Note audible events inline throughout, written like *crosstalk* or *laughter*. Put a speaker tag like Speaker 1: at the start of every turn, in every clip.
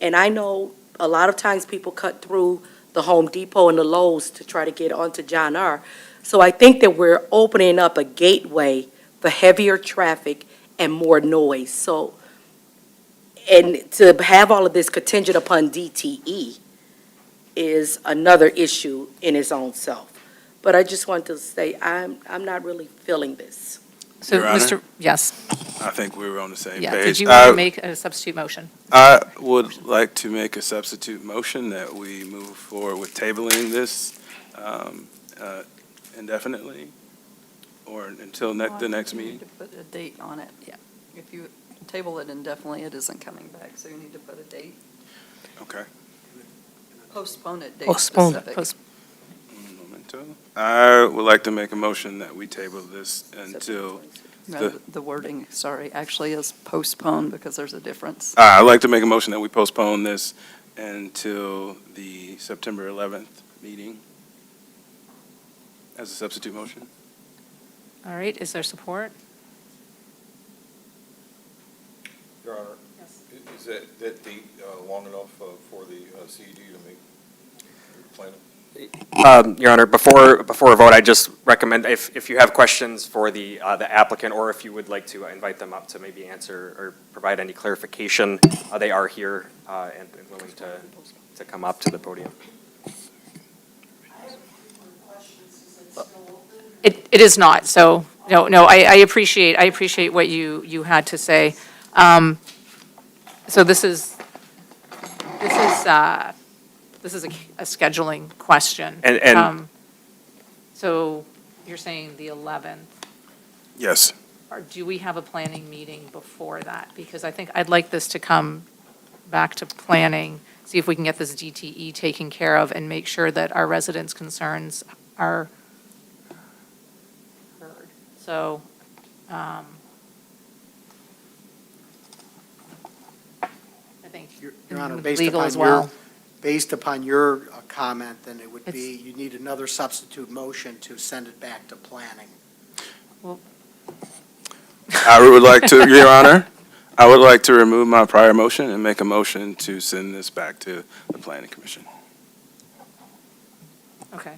Speaker 1: And I know a lot of times people cut through the Home Depot and the Lowe's to try to get onto John R. So I think that we're opening up a gateway for heavier traffic and more noise. So, and to have all of this contingent upon DTE is another issue in its own self. But I just want to say, I'm, I'm not really feeling this.
Speaker 2: So,
Speaker 3: Your Honor? Uh,
Speaker 2: Mr., yes,
Speaker 3: I think we were on the same
Speaker 2: yeah.
Speaker 3: page.
Speaker 2: Did you
Speaker 3: I-
Speaker 2: want to make a substitute motion?
Speaker 3: I would like to make a substitute motion that we move forward with tabling this um, uh, indefinitely or until ne- the next
Speaker 4: You
Speaker 3: meeting.
Speaker 4: need to put a date on it.
Speaker 2: Yeah.
Speaker 4: If you table it indefinitely, it isn't coming back, so you need to put a date,
Speaker 3: Okay.
Speaker 4: postpone it, date
Speaker 5: Postpone it.
Speaker 4: specific.
Speaker 2: Post-
Speaker 3: Un momento. I would like to make a motion that we table this until,
Speaker 4: No,
Speaker 3: the-
Speaker 4: the wording, sorry, actually is postpone because there's a difference.
Speaker 3: I'd like to make a motion that we postpone this until the September 11th meeting as a substitute motion.
Speaker 2: All right, is there support?
Speaker 6: Your Honor, i- is that, that date uh, long enough uh, for the uh, CED to make your plan?
Speaker 7: Um, Your Honor, before, before a vote, I just recommend, if, if you have questions for the, uh, the applicant, or if you would like to invite them up to maybe answer or provide any clarification, uh, they are here uh, and and willing to, to come up to the podium.
Speaker 2: It, it is not, so, no, no, I, I appreciate, I appreciate what you, you had to say. Um, So this is, this is, uh, this is a a scheduling question.
Speaker 7: And- and-
Speaker 2: Um, So you're saying the 11th,
Speaker 3: Yes.
Speaker 2: or do we have a planning meeting before that? Because I think I'd like this to come back to planning, see if we can get this DTE taken care of and make sure that our residents' concerns are heard. So, um, I think
Speaker 8: Your Your Honor, based
Speaker 2: legal
Speaker 8: upon
Speaker 2: as well.
Speaker 8: your, based upon your uh, comment, then it would be,
Speaker 2: It's-
Speaker 8: you need another substitute motion to send it back to planning.
Speaker 3: I would like to, Your Honor, I would like to remove my prior motion and make a motion to send this back to the Planning Commission.
Speaker 2: Okay.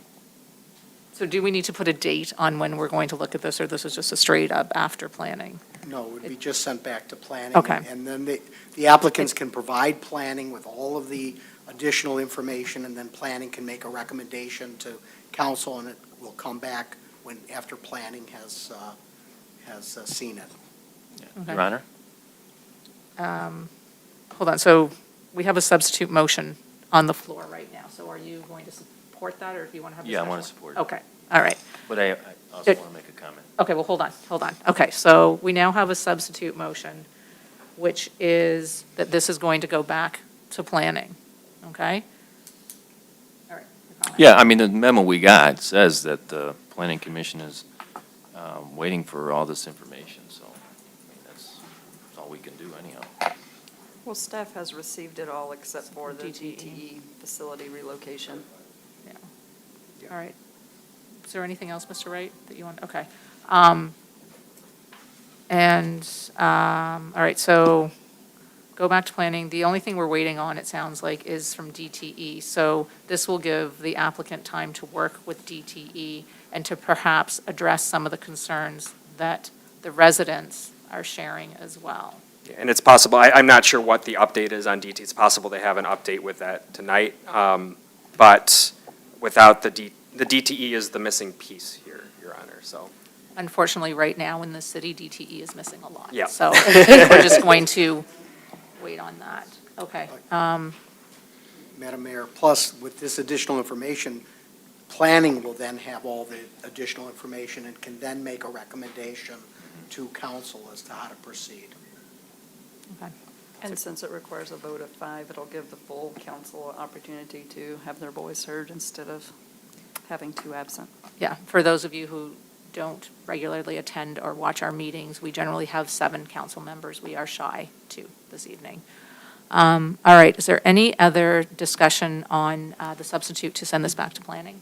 Speaker 2: So do we need to put a date on when we're going to look at this, or this is just a straight-up after planning?
Speaker 8: No, it would be just sent back to planning.
Speaker 2: Okay.
Speaker 8: And then the, the applicants can provide planning with all of the additional information, and then planning can make a recommendation to council, and it will come back when, after planning has, uh, has uh, seen it.
Speaker 2: Okay.
Speaker 9: Your Honor,
Speaker 2: Um, Hold on, so we have a substitute motion on the floor right now, so are you going to support that, or if you want to have a
Speaker 9: Yeah, I wanna
Speaker 2: discussion?
Speaker 9: support it.
Speaker 2: Okay, all right.
Speaker 9: but I I also
Speaker 2: Good.
Speaker 9: want to make a comment.
Speaker 2: Okay, well, hold on, hold on. Okay, so we now have a substitute motion, which is that this is going to go back to planning, okay? All right. your comment.
Speaker 9: Yeah, I mean, the memo we got says that the planning commission is um, waiting for all this information, so I mean, that's that's all we can do anyhow.
Speaker 4: Well, staff has received it all except for the
Speaker 2: DTE.
Speaker 4: DTE facility relocation.
Speaker 2: Yeah. All right. Is there anything else, Mr. Wright, that you want, okay. Um, And, um, all right, so go back to planning. The only thing we're waiting on, it sounds like, is from DTE. So this will give the applicant time to work with DTE and to perhaps address some of the concerns that the residents are sharing as well.
Speaker 7: And it's possible, I, I'm not sure what the update is on DT, it's possible they have an update with that tonight, um, but without the D, the DTE is the missing piece here, Your Honor, so.
Speaker 2: Unfortunately, right now in the city, DTE is missing a lot.
Speaker 7: Yeah.
Speaker 2: So *laughs* I think we're just going to wait on that. Okay. um,
Speaker 8: Madam Mayor, plus with this additional information, planning will then have all the additional information and can then make a recommendation to council as to how to proceed.
Speaker 4: And since it requires a vote of five, it'll give the full council opportunity to have their voice heard instead of having two absent.
Speaker 2: Yeah, for those of you who don't regularly attend or watch our meetings, we generally have seven council members. We are shy two this evening. Um, All right, is there any other discussion on uh, the substitute to send this back to planning?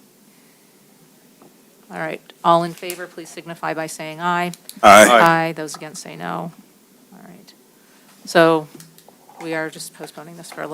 Speaker 2: All right, all in favor, please signify by saying aye.
Speaker 3: Aye.
Speaker 2: Those against say no. All right. So we are just postponing this for a little